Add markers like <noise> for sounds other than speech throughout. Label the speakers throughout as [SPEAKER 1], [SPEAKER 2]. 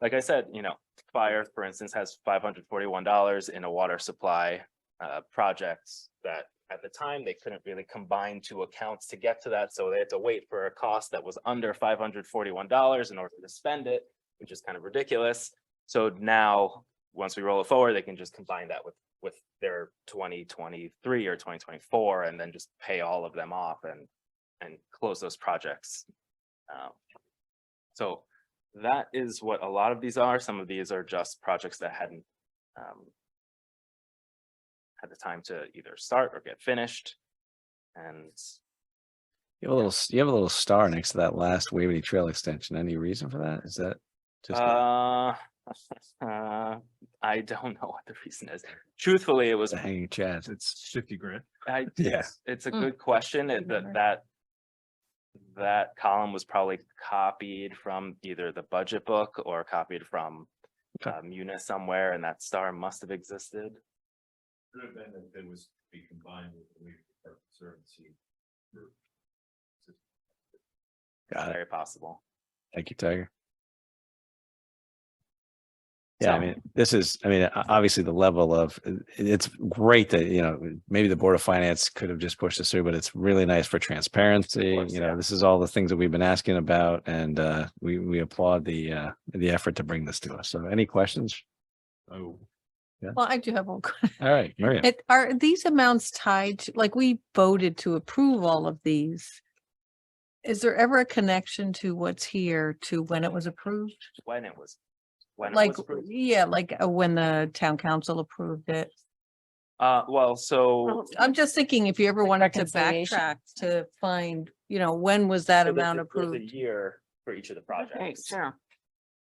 [SPEAKER 1] like I said, you know, fire, for instance, has five hundred forty-one dollars in a water supply. Uh, projects that at the time, they couldn't really combine two accounts to get to that, so they had to wait for a cost that was under five hundred forty-one dollars in order to spend it. Which is kind of ridiculous. So now, once we roll it forward, they can just combine that with, with their twenty twenty-three or twenty twenty-four and then just pay all of them off and, and close those projects. Um, So that is what a lot of these are. Some of these are just projects that hadn't, um, had the time to either start or get finished. And
[SPEAKER 2] You have a little, s- you have a little star next to that last Waverly Trail extension. Any reason for that? Is that? just a-
[SPEAKER 1] Uh, uh, <laughs> I don't know what the reason is. Truthfully, it
[SPEAKER 2] <laughs>
[SPEAKER 1] was,
[SPEAKER 2] It's a hanging chad.
[SPEAKER 3] It's fifty grand.
[SPEAKER 1] I,
[SPEAKER 2] Yeah.
[SPEAKER 1] it's, it's a
[SPEAKER 4] Mm.
[SPEAKER 1] good question and that,
[SPEAKER 4] Remember.
[SPEAKER 1] that. That column was probably copied from either the budget book or copied from.
[SPEAKER 2] Okay.
[SPEAKER 1] Uh, Munis somewhere and that star must have existed.
[SPEAKER 3] Could have been that it was to be combined with the League of Conservancy. group.
[SPEAKER 2] Got it.
[SPEAKER 1] Very possible.
[SPEAKER 2] Thank you, Tiger. Yeah, I
[SPEAKER 1] So-
[SPEAKER 2] mean, this is, I mean, o- obviously the level of, it- it's great that, you know, maybe the Board of Finance could have just pushed this through, but it's really nice for transparency.
[SPEAKER 1] course,
[SPEAKER 2] You
[SPEAKER 1] yeah.
[SPEAKER 2] know, this is all the things that we've been asking about and uh, we, we applaud the, uh, the effort to bring this to us. So any questions?
[SPEAKER 3] Oh,
[SPEAKER 4] Well, I do have one. <laughs> que-
[SPEAKER 2] All right, Maria.
[SPEAKER 4] It- Are these amounts tied, to- like we voted to approve all of these? Is there ever a connection to what's here to when it was approved?
[SPEAKER 1] When it was. When it
[SPEAKER 4] Like,
[SPEAKER 1] was. approved.
[SPEAKER 4] yeah, like uh, when the town council approved it.
[SPEAKER 1] Uh, well, so.
[SPEAKER 4] I'm just thinking if you ever wanted to
[SPEAKER 5] reconciliation.
[SPEAKER 4] backtrack to find, you know, when was that
[SPEAKER 1] so there's
[SPEAKER 4] amount
[SPEAKER 1] a- there's
[SPEAKER 4] approved?
[SPEAKER 1] A year for each of the projects.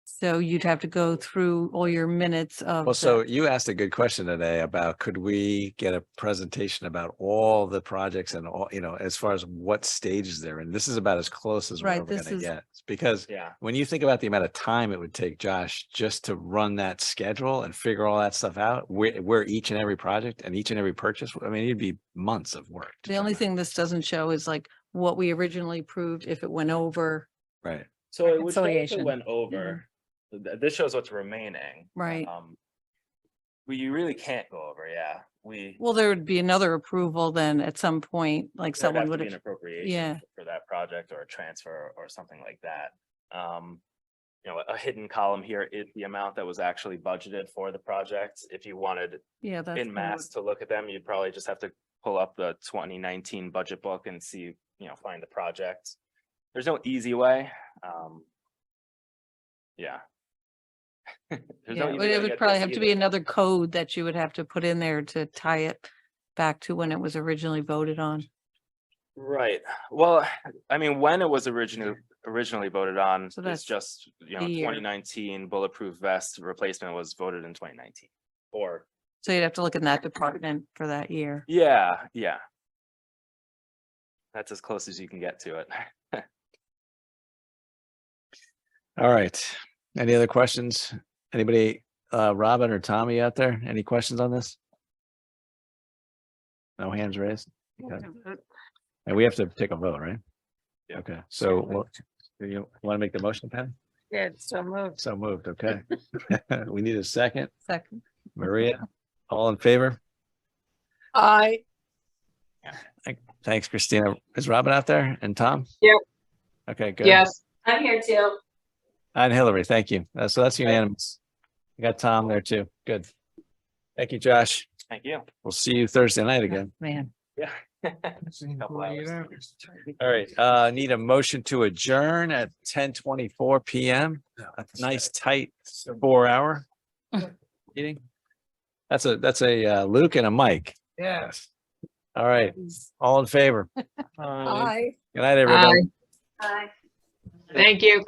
[SPEAKER 4] So you'd have to go through all your minutes of.
[SPEAKER 2] Well,
[SPEAKER 4] the-
[SPEAKER 2] so you asked a good question today about could we get a presentation about all the projects and all, you know, as far as what stages they're in? This is about as close as we're
[SPEAKER 4] Right,
[SPEAKER 2] ever
[SPEAKER 4] this
[SPEAKER 2] gonna
[SPEAKER 4] is-
[SPEAKER 2] get. Because
[SPEAKER 1] Yeah.
[SPEAKER 2] when you think about the amount of time it would take Josh just to run that schedule and figure all that stuff out, where, where each and every project and each and every purchase, I mean, it'd be months of work. to
[SPEAKER 4] The
[SPEAKER 2] do
[SPEAKER 4] only
[SPEAKER 2] that.
[SPEAKER 4] thing this doesn't show is like what we originally approved, if it went over,
[SPEAKER 2] Right.
[SPEAKER 1] So it would show if it
[SPEAKER 5] Reconciliation.
[SPEAKER 1] went over. Th- This shows what's remaining.
[SPEAKER 4] Mm-hmm. right?
[SPEAKER 1] Um, we you really can't go over, yeah. We.
[SPEAKER 4] Well, there would be another approval then at some point, like
[SPEAKER 1] there'd
[SPEAKER 4] someone
[SPEAKER 1] to
[SPEAKER 4] would
[SPEAKER 1] be An
[SPEAKER 4] have,
[SPEAKER 1] appropriation
[SPEAKER 4] yeah.
[SPEAKER 1] for that project or a transfer or something like that. Um, you know, a hidden column here is the amount that was actually budgeted for the project. If you wanted
[SPEAKER 4] yeah, that's.
[SPEAKER 1] in
[SPEAKER 4] kinda what-
[SPEAKER 1] mass to look at them, you'd probably just have to pull up the twenty nineteen budget book and see, you know, find the project. There's no easy way, um. Yeah. <laughs> There's no
[SPEAKER 4] Yeah,
[SPEAKER 1] easy
[SPEAKER 4] but
[SPEAKER 1] way to
[SPEAKER 4] it
[SPEAKER 1] get
[SPEAKER 4] would probably
[SPEAKER 1] this
[SPEAKER 4] have to
[SPEAKER 1] either.
[SPEAKER 4] be another code that you would have to put in there to tie it back to when it was originally voted on.
[SPEAKER 1] Right, well, I mean, when it was originally, originally voted on,
[SPEAKER 4] So
[SPEAKER 1] it's
[SPEAKER 4] that's
[SPEAKER 1] just, you
[SPEAKER 4] the
[SPEAKER 1] know,
[SPEAKER 4] year.
[SPEAKER 1] twenty nineteen bulletproof vest replacement was voted in twenty nineteen. Or,
[SPEAKER 4] So you'd have to look in that department for that year.
[SPEAKER 1] yeah, yeah. That's as close as you can get to it. <laughs>
[SPEAKER 2] All right. Any other questions? Anybody, uh, Robin or Tommy out there? Any questions on this? No hands raised? Okay. And we have to take a vote, right?
[SPEAKER 1] Yeah.
[SPEAKER 2] Okay, so well, do you want to make the motion, Patty?
[SPEAKER 5] Yeah, so moved.
[SPEAKER 2] So moved, okay. <laughs>
[SPEAKER 5] <laughs>
[SPEAKER 2] We need a second.
[SPEAKER 4] Second,
[SPEAKER 2] Maria, all in favor?
[SPEAKER 5] I.
[SPEAKER 2] Thanks, Christina. Is Robin out there and Tom?
[SPEAKER 6] Yep.
[SPEAKER 2] Okay, good.
[SPEAKER 6] Yes. I'm here too.
[SPEAKER 2] And Hillary, thank you. Uh, So that's unanimous. I got Tom there too. Good. Thank you, Josh.
[SPEAKER 1] Thank you.
[SPEAKER 2] We'll see you Thursday night again.
[SPEAKER 5] Man.
[SPEAKER 1] Couple hours.
[SPEAKER 2] All right, uh, need a motion to adjourn at ten twenty-four PM. A nice tight four hour meeting. That's a, that's a uh, Luke and a Mike. Yes. All right, all in favor.
[SPEAKER 5] I.
[SPEAKER 2] Good night, everybody.
[SPEAKER 6] Hi. Thank you.